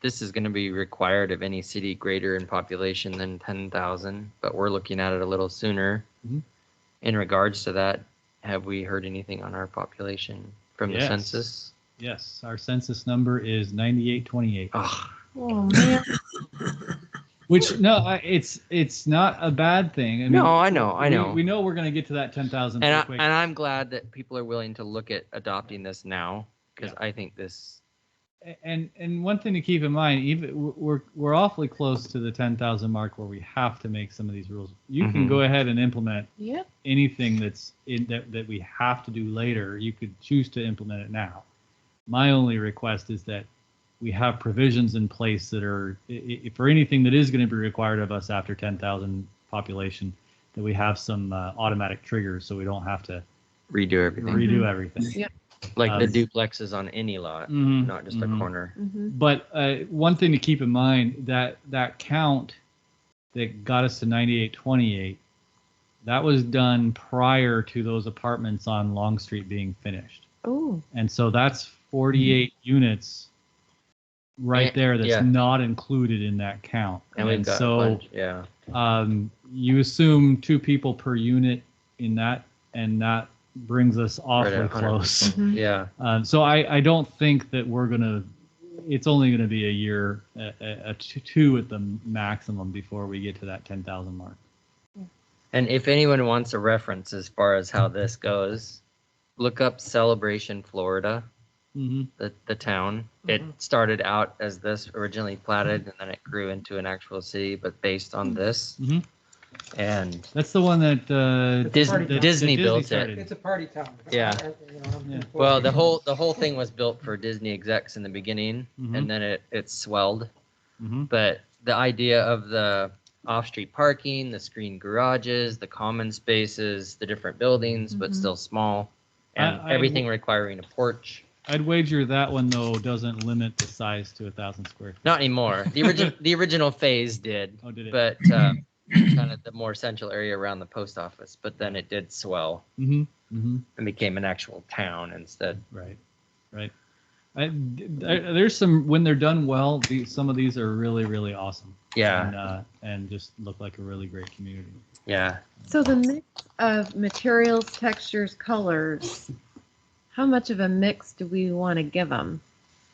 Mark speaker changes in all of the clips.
Speaker 1: this is going to be required of any city greater in population than 10,000, but we're looking at it a little sooner.
Speaker 2: Mhm.
Speaker 1: In regards to that, have we heard anything on our population from the
Speaker 2: Yes.
Speaker 1: census?
Speaker 2: Yes, our census number is 9828.
Speaker 1: Oh,
Speaker 3: Oh, man.
Speaker 2: Which no, I, it's it's not a bad thing. I mean,
Speaker 1: no, I know, I
Speaker 2: we-
Speaker 1: know.
Speaker 2: We, know we're gonna get to that 10,000
Speaker 1: and, I,
Speaker 2: pretty quick.
Speaker 1: and I'm glad that people are willing to look at adopting this now because I think this,
Speaker 2: and and one thing to keep in mind, even we're we're awfully close to the ten thousand mark where we have to make some of these rules. You can
Speaker 1: Mhm.
Speaker 2: go ahead and implement
Speaker 3: Yep.
Speaker 2: anything that's in, that that we have to do later. You could choose to implement it now. My only request is that we have provisions in place that are i- i- for anything that is going to be required of us after ten thousand population, that we have some uh, automatic triggers so we don't have to
Speaker 1: redo everything
Speaker 2: redo everything.
Speaker 1: like the
Speaker 2: um,
Speaker 1: duplexes on any lot,
Speaker 2: Mhm,
Speaker 1: not just a
Speaker 2: mhm.
Speaker 1: corner.
Speaker 3: Mm-hmm.
Speaker 2: But uh, one thing to keep in mind that that count that got us to 9828, that was done prior to those apartments on Long Street being finished,
Speaker 3: Oh,
Speaker 2: and so that's 48 units right
Speaker 1: Eh,
Speaker 2: there that's
Speaker 1: Mm-hmm. yeah.
Speaker 2: not included in that count.
Speaker 1: And we've got,
Speaker 2: so
Speaker 1: bunch- yeah,
Speaker 2: um, you assume two people per unit in that, and that brings us
Speaker 1: right
Speaker 2: awfully
Speaker 1: at 100%.
Speaker 2: close.
Speaker 3: Mhm.
Speaker 1: Yeah.
Speaker 2: Um, so I, I don't think that we're gonna. It's only gonna be a year, a, a, a two, two at the maximum before we get to that ten thousand mark.
Speaker 1: And if anyone wants a reference as far as how this goes, look up Celebration, Florida,
Speaker 2: Mm-hmm.
Speaker 1: the, the town. It started out as this originally platted and then it grew into an actual city, but based on this.
Speaker 2: Mhm.
Speaker 1: And
Speaker 2: That's the one that uh,
Speaker 1: Dis-
Speaker 2: that- that
Speaker 1: Disney built it.
Speaker 2: started.
Speaker 4: It's a party town.
Speaker 1: Yeah.
Speaker 4: You know, I'm
Speaker 2: Yeah.
Speaker 1: well, the whole the whole thing was built for Disney execs in the beginning
Speaker 2: Mhm.
Speaker 1: and then it, it swelled.
Speaker 2: Mhm.
Speaker 1: But the idea of the off street parking, the screen garages, the common spaces, the different buildings, but
Speaker 3: Mhm.
Speaker 1: still small, and
Speaker 2: Mm-hmm. I- I-
Speaker 1: everything requiring a porch.
Speaker 2: I'd wager that one though doesn't limit the size to a thousand square. feet.
Speaker 1: Not anymore. The original the original phase did,
Speaker 2: Oh, did it?
Speaker 1: but uh, kind of the more central area around the post office. But then it did swell
Speaker 2: mm-hmm. Mm-hmm.
Speaker 1: and became an actual town instead.
Speaker 2: Right, right. I, th- there's some when they're done well. The, some of these are really really awesome.
Speaker 1: Yeah,
Speaker 2: And, uh, and just look like a really great community.
Speaker 1: yeah.
Speaker 3: so the mix of materials, textures, colors, how much of a mix do we want to give them?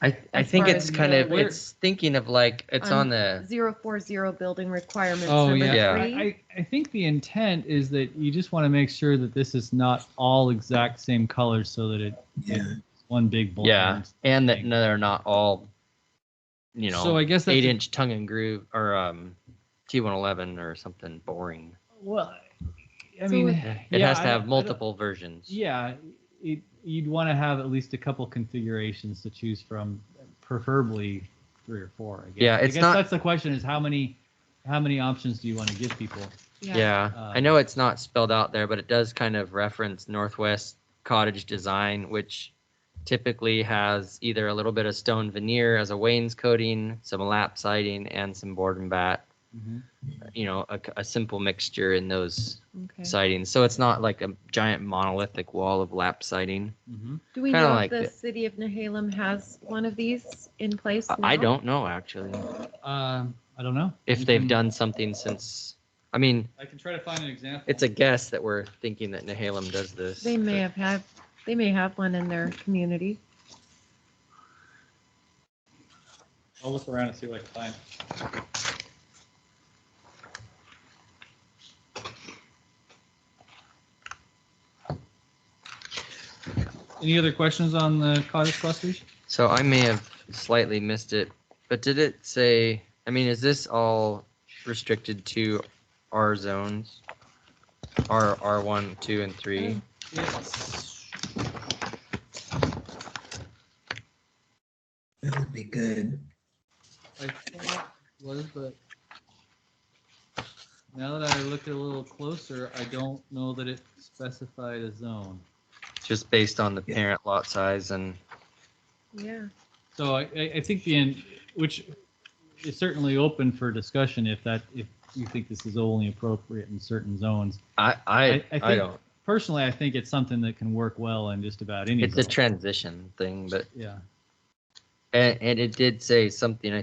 Speaker 1: I I
Speaker 3: As
Speaker 1: think
Speaker 3: far
Speaker 1: it's
Speaker 3: as
Speaker 1: kind
Speaker 3: the-
Speaker 1: of it's thinking of like it's on
Speaker 3: Um,
Speaker 1: the
Speaker 3: Zero four zero building requirements
Speaker 2: Oh,
Speaker 3: number
Speaker 2: yeah.
Speaker 1: Yeah.
Speaker 2: I,
Speaker 3: three.
Speaker 2: I I think the intent is that you just want to make sure that this is not all exact same colors so that it,
Speaker 5: Yeah.
Speaker 2: it's one big blend.
Speaker 1: yeah, and that
Speaker 2: thing.
Speaker 1: no, they're not all, you
Speaker 2: so
Speaker 1: know,
Speaker 2: I guess that's
Speaker 1: eight inch tongue and groove or um, T one eleven or something boring.
Speaker 2: Well, I
Speaker 3: So
Speaker 2: mean,
Speaker 3: it-
Speaker 1: It
Speaker 2: yeah,
Speaker 1: has to
Speaker 2: I- I
Speaker 1: have
Speaker 2: don't-
Speaker 1: multiple versions.
Speaker 2: Yeah, it, you'd want to have at least a couple configurations to choose from, preferably three or four. I guess.
Speaker 1: Yeah,
Speaker 2: I
Speaker 1: it's
Speaker 2: guess
Speaker 1: not-
Speaker 2: That's the question: is how many, how many options do you want to give people?
Speaker 1: Yeah, I
Speaker 2: Um,
Speaker 1: know it's not spelled out there, but it does kind of reference Northwest cottage design, which typically has either a little bit of stone veneer as a wainscoting, some lap siding, and some board and bat. You know, a, a simple mixture in those
Speaker 3: Okay.
Speaker 1: sidings. So it's not like a giant monolithic wall of lap siding.
Speaker 2: hmm
Speaker 3: Do we
Speaker 1: kinda
Speaker 3: know
Speaker 1: like
Speaker 3: if the
Speaker 1: it.
Speaker 3: city of Nehalem has one of these in place?
Speaker 1: I- I
Speaker 3: now?
Speaker 1: don't know actually
Speaker 2: Um, I don't know
Speaker 1: if
Speaker 2: You
Speaker 1: they've
Speaker 2: can-
Speaker 1: done something since. I mean,
Speaker 2: I can try to find an example.
Speaker 1: it's a guess that we're thinking that Nehalem does this.
Speaker 3: They may have had, they may have one in their community.
Speaker 2: I'll look around and see what I can find. Any other questions on the cottage clusters?
Speaker 1: So I may have slightly missed it, but did it say, I mean, is this all restricted to our zones? R, R1, 2, and
Speaker 2: Mm.
Speaker 1: 3?
Speaker 5: That would be good.
Speaker 2: I thought it was, but now that I looked a little closer, I don't know that it specified a zone.
Speaker 1: Just based on the parent lot size and,
Speaker 3: Yeah.
Speaker 2: So I, I I think the end, which is certainly open for discussion if that, if you think this is only appropriate in certain zones.
Speaker 1: I,
Speaker 2: I
Speaker 1: I,
Speaker 2: think-
Speaker 1: I don't,
Speaker 2: personally, I think it's something that can work well in just about any.
Speaker 1: it's a
Speaker 2: zone.
Speaker 1: transition thing, but,
Speaker 2: Yeah.
Speaker 1: and, and it did say something, I